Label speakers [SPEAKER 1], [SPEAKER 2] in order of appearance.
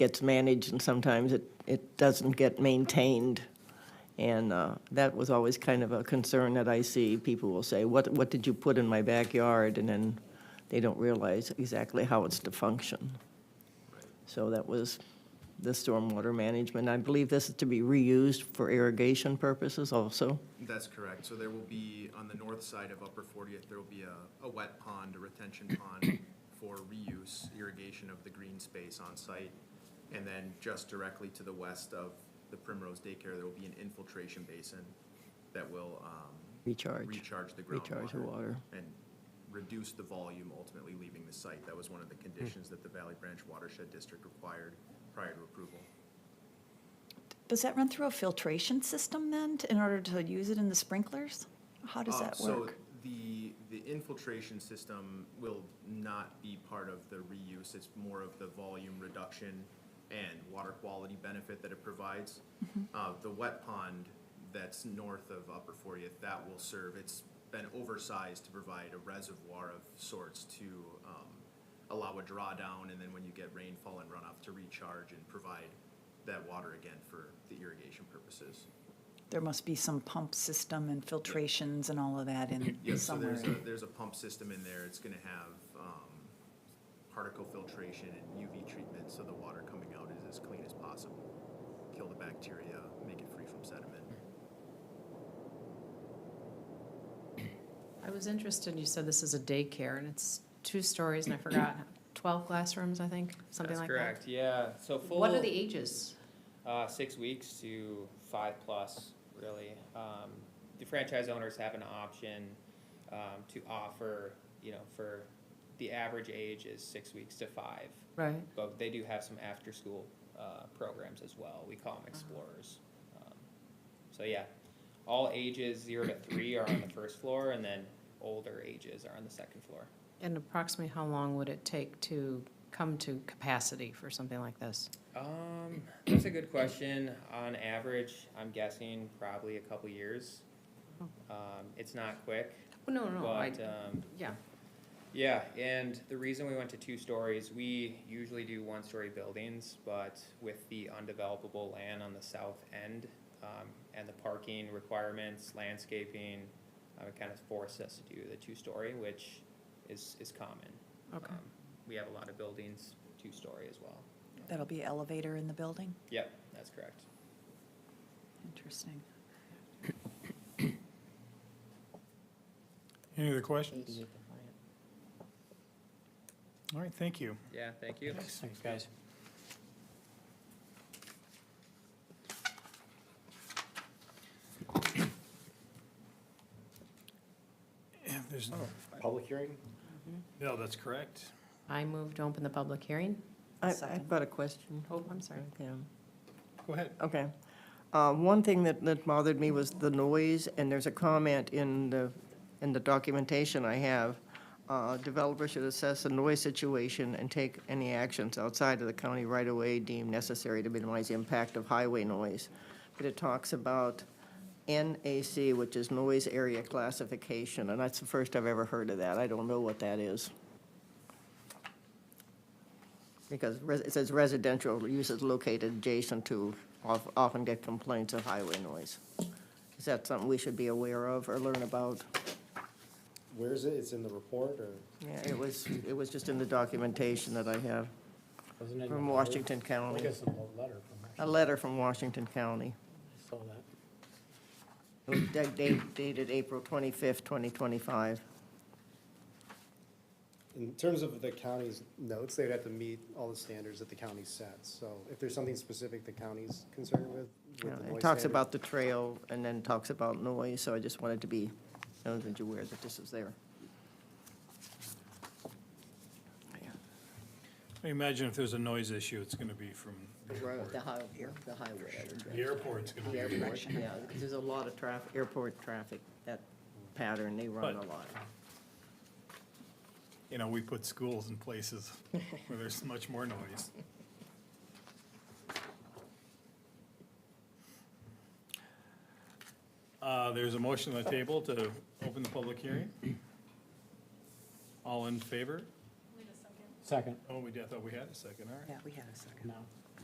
[SPEAKER 1] gets managed and sometimes it, it doesn't get maintained. And uh, that was always kind of a concern that I see. People will say, what, what did you put in my backyard? And then they don't realize exactly how it's to function. So that was the stormwater management. I believe this is to be reused for irrigation purposes also.
[SPEAKER 2] That's correct. So there will be, on the north side of Upper 40th, there will be a, a wet pond, a retention pond for reuse, irrigation of the green space on site. And then just directly to the west of the Primrose Daycare, there will be an infiltration basin that will, um.
[SPEAKER 1] Recharge.
[SPEAKER 2] Recharge the groundwater.
[SPEAKER 1] Recharge the water.
[SPEAKER 2] And reduce the volume ultimately leaving the site. That was one of
[SPEAKER 1] Hmm.
[SPEAKER 2] the conditions that the Valley Branch Watershed District required prior to approval.
[SPEAKER 3] Does that run through a filtration system then, t- in order to use it in the sprinklers? How does
[SPEAKER 2] Uh,
[SPEAKER 3] that
[SPEAKER 2] So
[SPEAKER 3] work?
[SPEAKER 2] the, the infiltration system will not be part of the reuse. It's more of the volume reduction and water quality benefit that it provides.
[SPEAKER 3] Mm-hmm.
[SPEAKER 2] Uh, The wet pond that's north of Upper 40th, that will serve, it's been oversized to provide a reservoir of sorts to um, allow a drawdown, and then when you get rainfall and runoff, to recharge and provide that water again for the irrigation purposes.
[SPEAKER 3] There must be some pump system and filtrations and all of that in
[SPEAKER 2] Yes, so
[SPEAKER 3] somewhere.
[SPEAKER 2] there's a, there's a pump system in there, it's gonna have, um, particle filtration and UV treatment, so the water coming out is as clean as possible. Kill the bacteria, make it free from sediment.
[SPEAKER 4] I was interested, you said this is a daycare, and it's two stories, and I forgot, 12 classrooms, I think, something like that?
[SPEAKER 5] That's correct, yeah, so full.
[SPEAKER 4] What are the e- ages?
[SPEAKER 5] Uh, six weeks to five plus, really. Um, the franchise owners have an option, um, to offer, you know, for, the average age is six weeks to five.
[SPEAKER 4] Right.
[SPEAKER 5] But they do have some after-school, uh, programs as well, we
[SPEAKER 4] Uh-huh.
[SPEAKER 5] call them explorers. Um, So, yeah, all ages zero to three are on the first floor, and then older ages are on the second floor.
[SPEAKER 4] And approximately how long would it take to come to capacity for something like this?
[SPEAKER 5] Um, that's a good question. On average, I'm guessing probably a couple years. Um, it's not quick,
[SPEAKER 4] Oh, No, no, Hmm. I,
[SPEAKER 5] but, um,
[SPEAKER 4] yeah,
[SPEAKER 5] yeah, and the reason we went to two stories, we usually do one-story buildings, but with the undevelopable land on the south end, um, and the parking requirements, landscaping, um, it kind of forced us to do the two-story, which is, is common.
[SPEAKER 4] okay.
[SPEAKER 5] Um, We have a lot of buildings, two-story as well.
[SPEAKER 3] That'll be elevator in the building?
[SPEAKER 5] Yep, that's correct.
[SPEAKER 3] Interesting.
[SPEAKER 6] Any other questions?
[SPEAKER 5] um,
[SPEAKER 6] All right, thank you.
[SPEAKER 5] Yeah, thank you.
[SPEAKER 7] Thanks, guys.
[SPEAKER 6] If there's no,
[SPEAKER 7] Public hearing?
[SPEAKER 6] Oh, no, that's correct.
[SPEAKER 4] I move to open the public hearing.
[SPEAKER 1] I, I've
[SPEAKER 3] Second.
[SPEAKER 1] got a question.
[SPEAKER 4] Oh, I'm sorry.
[SPEAKER 1] Yeah.
[SPEAKER 6] Go ahead.
[SPEAKER 1] Okay. Uh, One thing that, that bothered me was the noise, and there's a comment in the, in the documentation I have. uh, Developer should assess the noise situation and take any actions outside of the county right-of-way deemed necessary to minimize the impact of highway noise. But it talks about NAC, which is noise area classification, and that's the first I've ever heard of that. I don't know what that is. Because res- it says residential uses located adjacent to of- often get complaints of highway noise. Is that something we should be aware of or learn about?
[SPEAKER 7] Where is it? It's in the report or?
[SPEAKER 1] Yeah, it was, it was just in the documentation that I have
[SPEAKER 7] wasn't it in
[SPEAKER 1] from
[SPEAKER 7] the letter?
[SPEAKER 1] Washington
[SPEAKER 7] I
[SPEAKER 1] County,
[SPEAKER 7] guess it's a letter from.
[SPEAKER 1] a letter from Washington County.
[SPEAKER 7] I Saw that.
[SPEAKER 1] It was da- da- dated April 25th, 2025.
[SPEAKER 7] In terms of the county's notes, they'd have to meet all the standards that the county sets. So if there's something specific the county's concerned with, with the
[SPEAKER 1] Yeah,
[SPEAKER 7] noise
[SPEAKER 1] It talks
[SPEAKER 7] standard-
[SPEAKER 1] about the trail and then talks about noise, so I just wanted to be, know that you're aware that this is there.
[SPEAKER 6] I imagine if there's a noise issue, it's going to be from the airport.
[SPEAKER 1] highway, the highway.
[SPEAKER 6] The airport's going to be.
[SPEAKER 1] Yeah, because there's a lot of traffic, airport traffic, that pattern, they run a
[SPEAKER 6] But-
[SPEAKER 1] lot.
[SPEAKER 6] You know, we put schools in places where there's much more noise. Uh, There's a motion on the table to open the public hearing. All in favor?
[SPEAKER 7] Second.
[SPEAKER 6] Oh, we did, I thought we had a second, all right.
[SPEAKER 3] Yeah, we had a second.
[SPEAKER 7] No.